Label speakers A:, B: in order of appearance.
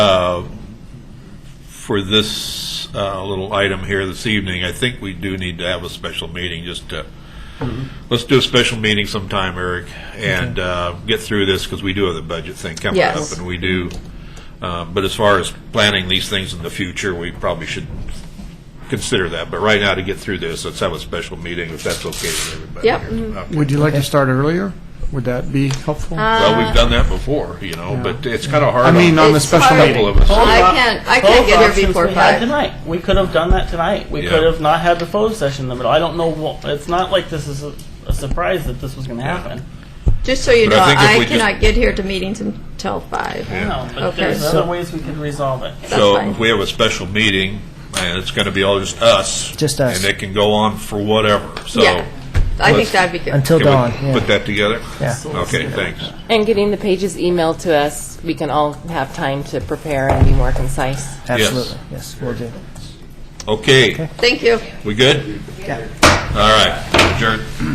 A: Uh, For this uh, little item here this evening, I think we do need to have a special meeting just to,
B: Mm-hmm.
A: let's do a special meeting sometime, Eric, and uh, get through this because we do have the budget thing coming up.
B: Yes.
A: And we do, uh, but as far as planning these things in the future, we probably should consider that. But right now, to get through this, let's have a special meeting if that's okay with everybody.
B: Yep. Mm-hmm.
A: here. Okay.
C: Would you like to start earlier? Would that be helpful?
A: Well,
B: Uh,
A: we've done that before, you know, but it's kind of hard.
C: I mean, um, on the
B: It's
C: special
B: hard.
C: meeting.
A: Couple of us.
B: I can't- I can't get
D: both
B: here
D: options
B: before
D: we
B: five.
D: Had tonight. We could have done that tonight. We
A: Yeah.
D: could have not had the photo session in the middle. I don't know. What, it's not like this is a, a surprise that this was going to happen.
B: Just so you
A: But
B: know,
A: I think if
B: I
A: we just-
B: cannot get here to meetings until five.
A: Yeah.
D: No, but
B: Okay.
D: there's
B: So-
D: other ways we could resolve it.
B: That's
A: So
B: fine.
A: if we have a special meeting, and it's going to be all just us.
E: Just us.
A: And it can go on for whatever, so.
B: Yeah, I think
A: let's-
B: that'd be good.
E: Until
A: Can we
E: dawn, yeah.
A: Put that together?
E: Yeah.
A: Okay, thanks.
F: And getting the pages emailed to us, we can all have time to prepare and be more concise.
E: Absolutely, yes, we'll do.
A: Okay,
B: Thank you.
A: we good?
E: Yeah.
A: All right, adjourned.